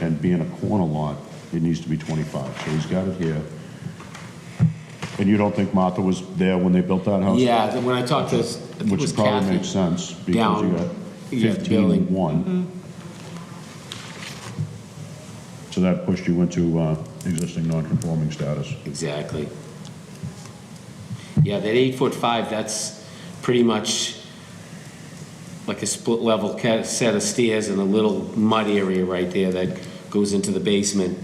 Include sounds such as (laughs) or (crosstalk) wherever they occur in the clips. and being a corner lot, it needs to be 25, so he's got it here. And you don't think Martha was there when they built that house? Yeah, then when I talked to, I think it Oh, Which was probably makes Kathy. sense, because you down, got yeah, the building. 15-1. So that pushed you into uh, existing non-conforming status. Exactly. Yeah, that eight foot five, that's pretty much like a split level ca- set of stairs and a little mud area right there that goes into the basement.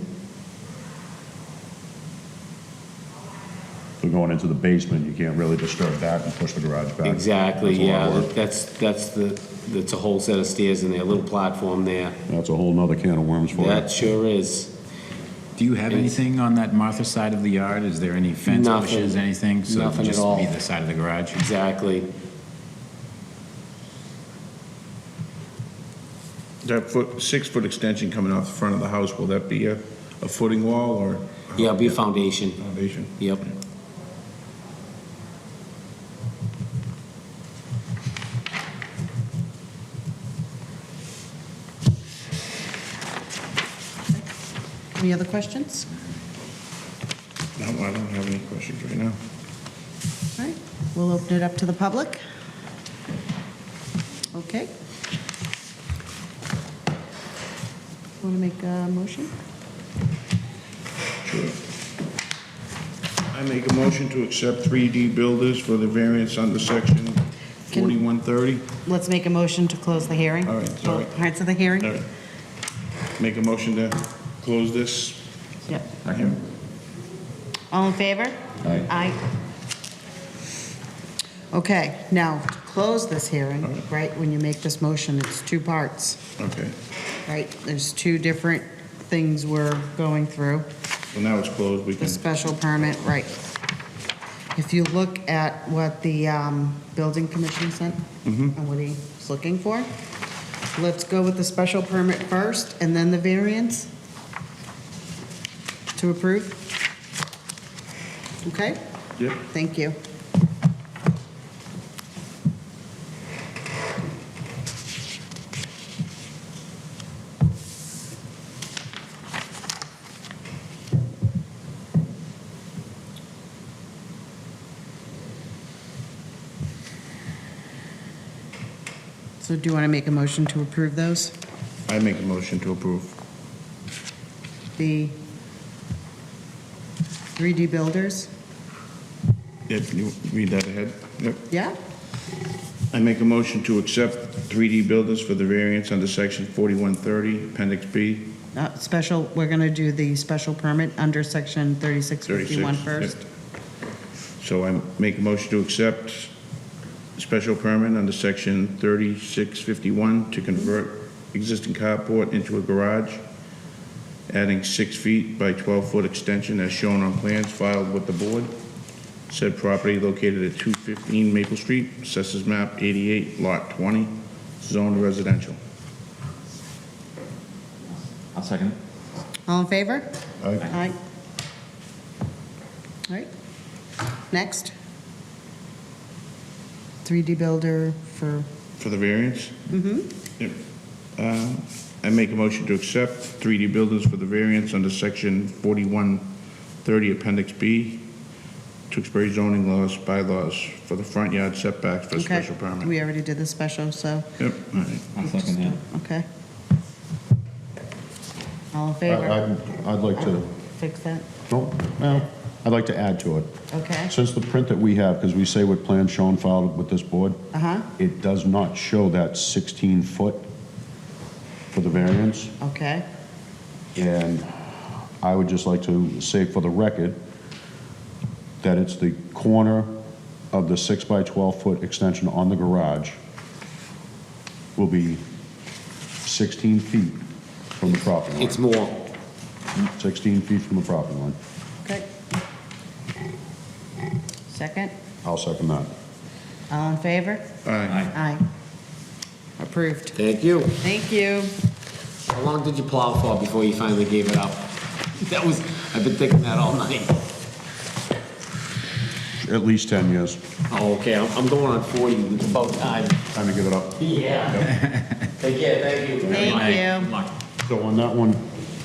So going into the basement, you can't really disturb that and push the garage back. Exactly, That's a lot yeah, of work. that's, that's the, that's a whole set of stairs in there, a little platform there. That's a whole nother can of worms for you. That sure is. Do you have anything on that Martha side of the yard? Is there any fence Nothing. bushes, anything? So it Nothing at all. would just be the side of the garage? Exactly. That foot, six-foot extension coming off the front of the house, will that be a, a footing wall or? Yeah, it'll be a foundation. Foundation? Yep. Any other questions? No, I don't have any questions right now. All right, we'll open it up to the public. Okay. Want to make a motion? Sure. I make a motion to accept 3D builders for the variance under section Can- 4130. Let's make a motion to close the hearing. All right, sorry. All right, so the hearing? All right. Make a motion to close this. Yep. Second. All in favor? Aye. Okay, now, to close this hearing, right, when you make this motion, it's two parts, Okay, right? There's two different things we're going through. so now it's closed, we The can, special permit, right. If you look at what the um, building commission sent Mm-hmm. and what he's looking for, let's go with the special permit first and then the variance to approve. Okay, yep, thank you. So do you want to make a motion to approve those? I make a motion to approve. The 3D builders? Yep, you read that ahead? Yep. Yeah? I make a motion to accept 3D builders for the variance under section 4130, appendix B, Uh, Special, we're going to do the special permit under section 36. 3651 first. Yep. So I make a motion to accept special permit under section 3651 to convert existing carport into a garage, adding six feet by 12-foot extension as shown on plans filed with the board. Said property located at 215 Maple Street, assessors map 88, lot 20, zoned residential. I'll second. All in favor? Aye. Aye. All right. Next. 3D builder for, For the variance? Mm-hmm. I make a motion to accept 3D buildings for the variance under section 4130 Appendix B, Tewksbury zoning laws, bylaws for the front yard setbacks for okay. special permit. We already did the special, so, Yep, all right. I'll second that. okay. All in I- favor? I'd I'd like to, Fix that, no, well, I'd like to add to it. okay. Since the print that we have, because we say what plan shown filed with this board, Uh-huh, it does not show that 16-foot for the variance, okay. and I would just like to say for the record that it's the corner of the 6 by 12-foot extension on the garage will be 16 feet from the property line. It's more. 16 feet from the property line. Okay. Second, I'll second that. all in favor? Aye. Aye. Approved. Thank you. Thank you. How long did you plow for before you finally gave it up? (laughs) That was, I've been thinking that all night. At least 10 years. Oh, okay, I'm I'm going on 40, it's about time. Time to give it up. (laughs) Yeah. Take care, thank you. Thank you. So on that one,